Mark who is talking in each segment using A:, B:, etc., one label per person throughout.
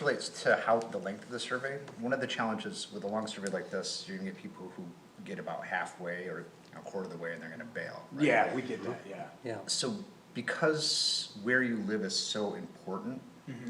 A: relates to how, the length of the survey. One of the challenges with a long survey like this, you're gonna get people who get about halfway or a quarter of the way and they're gonna bail, right?
B: Yeah, we get that, yeah.
C: Yeah,
A: So because where you live is so important,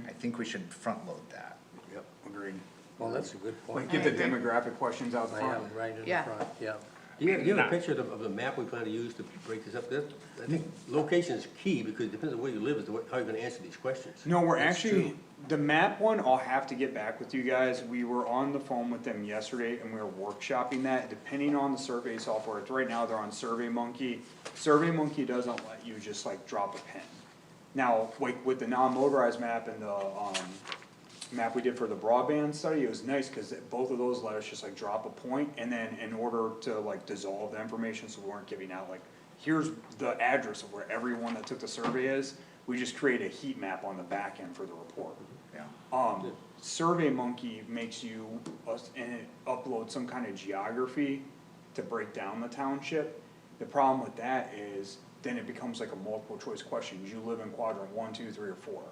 A: I think we should front load that.
B: Yep. Agreed.
C: well, that's a good
B: Like,
C: point.
B: get the demographic questions out
C: I
B: front.
C: am right in the
D: Yeah.
C: front, yeah.
E: Do you have, do you have a picture of, the- of the map we plan to use to break this up? That- I think location is key because it depends on where you live is the way- how you're gonna answer these questions.
B: No, we're
E: That's
B: actually,
E: true.
B: the map one, I'll have to get back with you guys, we were on the phone with them yesterday and we were workshopping that, depending on the survey software, it's right now they're on Survey Monkey. Survey Monkey doesn't let you just like drop a pin. Now, like with the non-motorized map and the, um, map we did for the broadband study, it was nice, cause it- both of those let us just like drop a point, and then in order to like dissolve the information, so we weren't giving out like, here's the address of where everyone that took the survey is, we just create a heat map on the back end for the report.
A: Yeah.
B: Um, Survey Monkey makes you, us- and it uploads some kind of geography to break down the township. The problem with that is, then it becomes like a multiple choice question, you live in quadrant one, two, three, or four.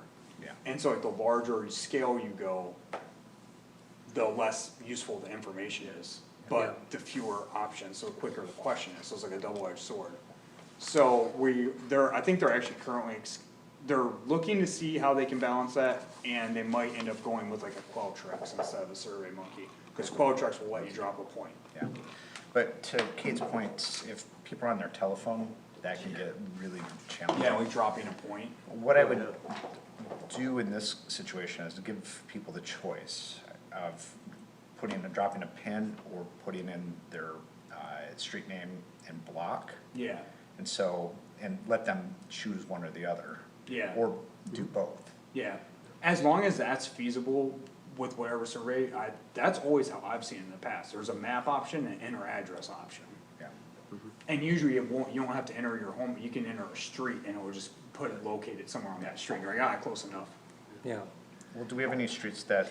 A: Yeah.
B: And so like the larger scale you go, the less useful the information is, but the fewer options, so quicker the question is, so it's like a double-edged sword. So we, they're, I think they're actually currently, ex- they're looking to see how they can balance that, and they might end up going with like a Qualtrics instead of a Survey Monkey, cause Qualtrics will let you drop a point.
A: Yeah, but to Kate's point, if people are on their telephone, that can get really challenging.
B: Yeah, like dropping a point,
A: What I would do in this situation is to give people the choice of putting, dropping a pin or putting in their, uh, street name and block.
B: yeah,
A: And so, and let them choose one or the other.
B: Yeah.
A: Or do both.
B: yeah. As long as that's feasible with whatever survey, I, that's always how I've seen it in the past, there's a map option and enter address option.
A: Yeah,
B: And usually it won't, you don't have to enter your home, you can enter a street and it will just put it located somewhere on that street, you're like, ah, close enough.
C: Yeah,
A: Well, do we have any streets that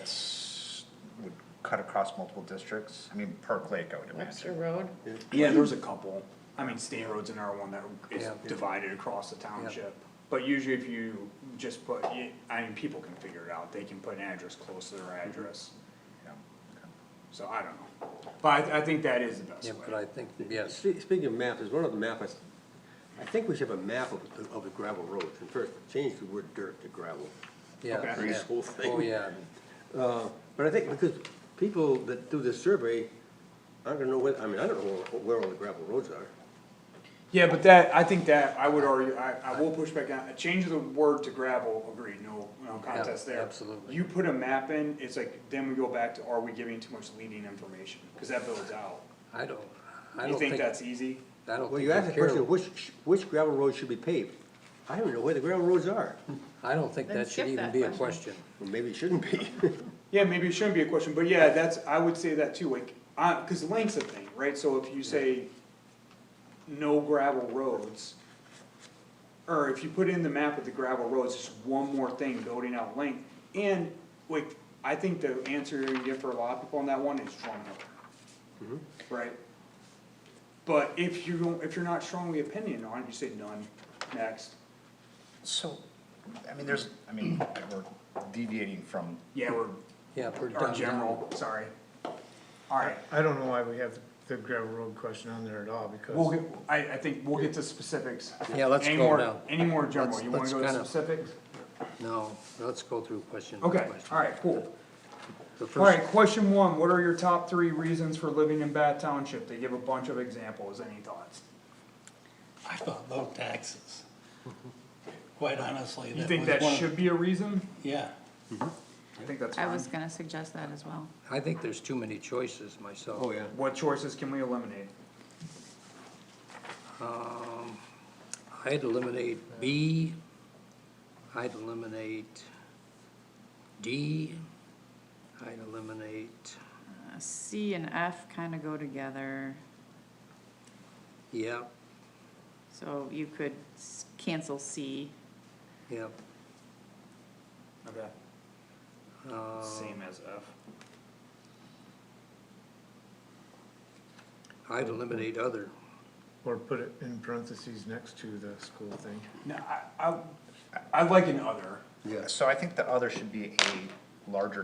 A: would cut across multiple districts? I mean, Park Lake, I would
D: Webster
A: imagine.
D: Road,
B: Yeah, there's a couple, I mean, State Road's another one that is
C: Yeah.
B: divided across the township. But usually if you just put, you- I mean, people can figure it out, they can put an address close to their address,
A: Yeah.
B: so I don't know. But I, I think that is the
C: yeah,
B: best
C: but
B: way.
C: I think, yes,
E: Spe- Speaking of maps, there's one other map, I, s- I think we should have a map of, the- of the gravel roads. And first, change the word dirt to gravel.
C: yeah.
B: Okay.
C: yeah.
E: This whole thing.
C: Oh, yeah,
E: Uh, But I think because people that do this survey aren't gonna know where, I mean, I don't know where- where all the gravel roads are.
B: Yeah, but that, I think that, I would argue, I, I will push back on, change the word to gravel, agreed, no, no contest there.
C: absolutely.
B: You put a map in, it's like, then we go back to, are we giving too much leading information, cause that builds out.
C: I don't, I
B: You
C: don't
B: think
C: think,
B: that's easy?
C: I don't
E: Well, you asked
C: think
E: the
C: they care,
E: question, which, which gravel road should be paved? I don't know where the gravel roads are.
C: I don't think
D: Then
C: that should
D: skip
C: even
D: that
C: be a
D: question.
C: question.
E: Well, maybe it shouldn't be.
B: Yeah, maybe it shouldn't be a question, but yeah, that's, I would say that too, like, I, cause length's a thing, right, so if you say no gravel roads, or if you put in the map with the gravel roads, it's one more thing building out length, and, like, I think the answer you get for a lot of people on that one is Drum Hill.
C: Mm-hmm.
B: Right? But if you don't, if you're not strongly opinion on it, you say none, next,
A: So, I mean, there's, I mean, we're deviating from
B: yeah, we're,
C: Yeah, if we're
B: or
C: done now.
B: general, sorry. Alright.
F: I don't know why we have the gravel road question on there at all,
B: We'll
F: because
B: get, I, I think we'll get to specifics.
C: Yeah, let's
B: Any
C: go
B: more-
C: now.
B: Any more general,
C: Let's-
B: you wanna
C: let's
B: go to
C: kinda-
B: specifics?
C: No, let's go through question by
B: Okay,
C: question.
B: alright, cool.
C: The
B: Alright,
C: first,
B: question one, what are your top three reasons for living in Bath Township? They give a bunch of examples, any thoughts?
G: I thought low taxes. Quite honestly,
B: You
G: that
B: think
G: was
B: that
G: one of-
B: should be a reason?
G: Yeah,
B: I think that's
D: I
B: fine.
D: was gonna suggest that as well.
C: I think there's too many choices myself.
E: Oh, yeah.
B: What choices can we eliminate?
C: I'd eliminate B, I'd eliminate D, I'd eliminate,
D: Uh, C and F kinda go together,
C: yeah,
D: so you could s- cancel C.
C: yeah.
B: Okay. Same as
C: Um,
B: F.
C: I'd eliminate other.
F: or put it in parentheses next to the school thing.
B: No, I, I, I like an other,
E: Yes.
A: So I think the other should be a larger